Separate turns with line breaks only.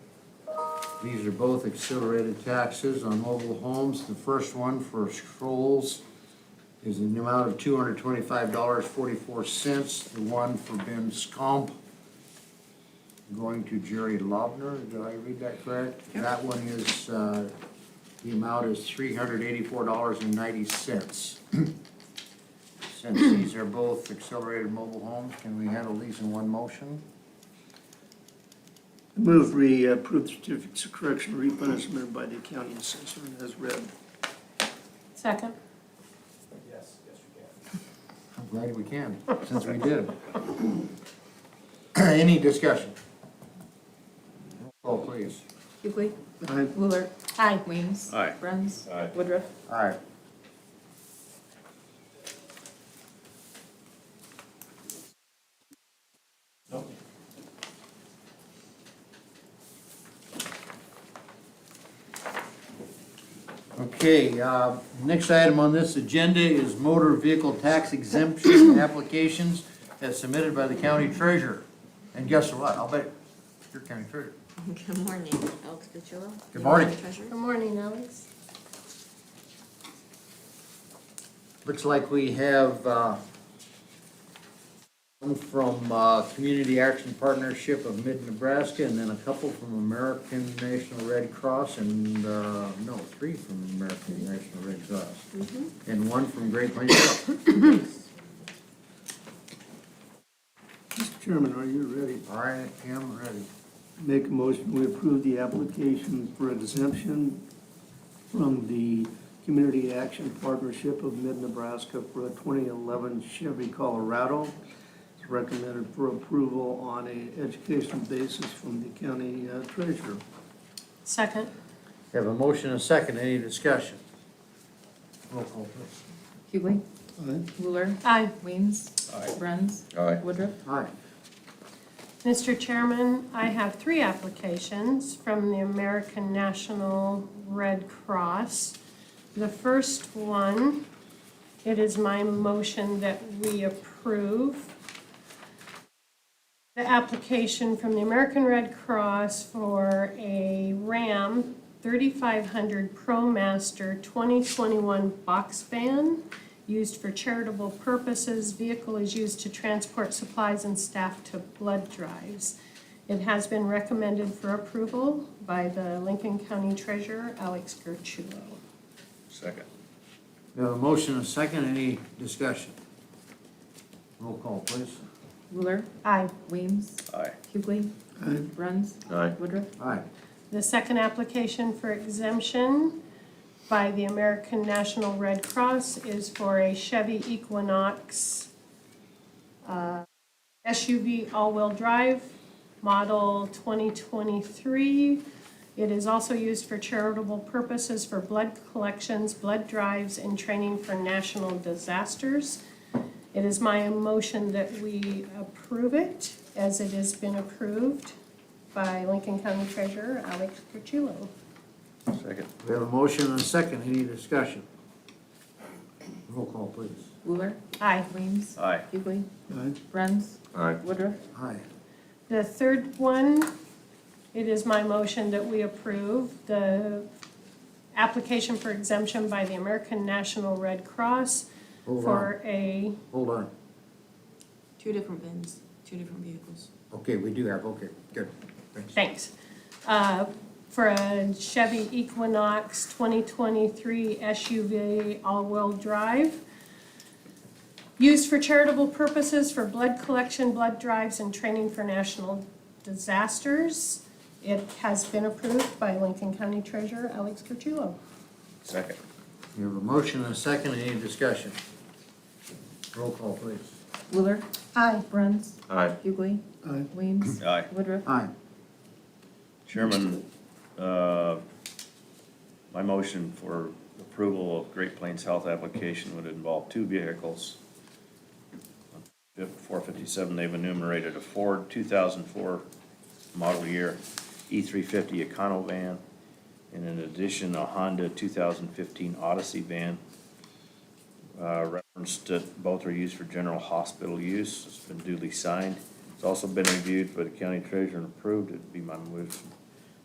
These are both accelerated taxes on mobile homes. The first one for Scrolls is an amount of two hundred twenty-five dollars forty-four cents. The one for Ben Scomp going to Jerry Lobner. Did I read that correct? That one is, uh, the amount is three hundred eighty-four dollars and ninety cents. Since these are both accelerated mobile homes, can we handle these in one motion?
Move we approve the certificates of correction replenishment by the county assessor as read.
Second.
Yes, yes, you can.
I'm glad we can, since we did. Any discussion? Oh, please.
Hughley.
Aye.
Wheeler. Aye. Weems.
Aye.
Bruns.
Aye.
Woodruff.
All right. Okay, uh, next item on this agenda is motor vehicle tax exemption applications as submitted by the county treasurer. And guess what? I'll bet you're county treasurer.
Good morning, Alex Cucciolo.
Good morning.
Treasurer.
Good morning, Alex.
Looks like we have, uh, one from, uh, Community Action Partnership of Mid-Nebraska, and then a couple from American National Red Cross, and, uh, no, three from American National Red Cross. And one from Great Plains Health.
Mr. Chairman, are you ready?
I am ready.
Make a motion, we approve the application for exemption from the Community Action Partnership of Mid-Nebraska for a 2011 Chevy Colorado. It's recommended for approval on a educational basis from the county uh, treasurer.
Second.
Have a motion and a second, any discussion? Roll call, please.
Hughley. Wheeler. Aye. Weems.
Aye.
Bruns. Aye. Woodruff.
Aye.
Mr. Chairman, I have three applications from the American National Red Cross. The first one, it is my motion that we approve the application from the American Red Cross for a Ram 3500 ProMaster 2021 box van used for charitable purposes. Vehicle is used to transport supplies and staff to blood drives. It has been recommended for approval by the Lincoln County Treasurer, Alex Gertrulo.
Second.
We have a motion and a second, any discussion? Roll call, please.
Wheeler.
Aye.
Weems.
Aye.
Hughley.
Aye.
Bruns.
Aye.
Woodruff.
Aye.
The second application for exemption by the American National Red Cross is for a Chevy Equinox uh, SUV all-wheel drive, model 2023. It is also used for charitable purposes for blood collections, blood drives, and training for national disasters. It is my motion that we approve it as it has been approved by Lincoln County Treasurer Alex Curtulo.
Second.
We have a motion and a second, any discussion? Roll call, please.
Wheeler.
Aye.
Weems.
Aye.
Hughley.
Aye.
Bruns.
Aye.
Woodruff.
Aye.
The third one, it is my motion that we approve the application for exemption by the American National Red Cross
Hold on,
for a,
hold on.
Two different bins, two different vehicles.
Okay, we do have, okay, good, thanks.
thanks, uh, for a Chevy Equinox 2023 SUV all-wheel drive. Used for charitable purposes for blood collection, blood drives, and training for national disasters. It has been approved by Lincoln County Treasurer Alex Curtulo.
Second.
We have a motion and a second, any discussion? Roll call, please.
Wheeler.
Aye.
Bruns.
Aye.
Hughley.
Aye.
Weems.
Aye.
Woodruff.
Aye.
Chairman, uh, my motion for approval of Great Plains Health application would involve two vehicles. Four fifty-seven, they've enumerated a Ford two thousand four model year E three fifty Econovan, and in addition, a Honda two thousand fifteen Odyssey van. Uh, referenced that both are used for general hospital use, it's been duly signed. It's also been reviewed by the county treasurer and approved, it'd be my motion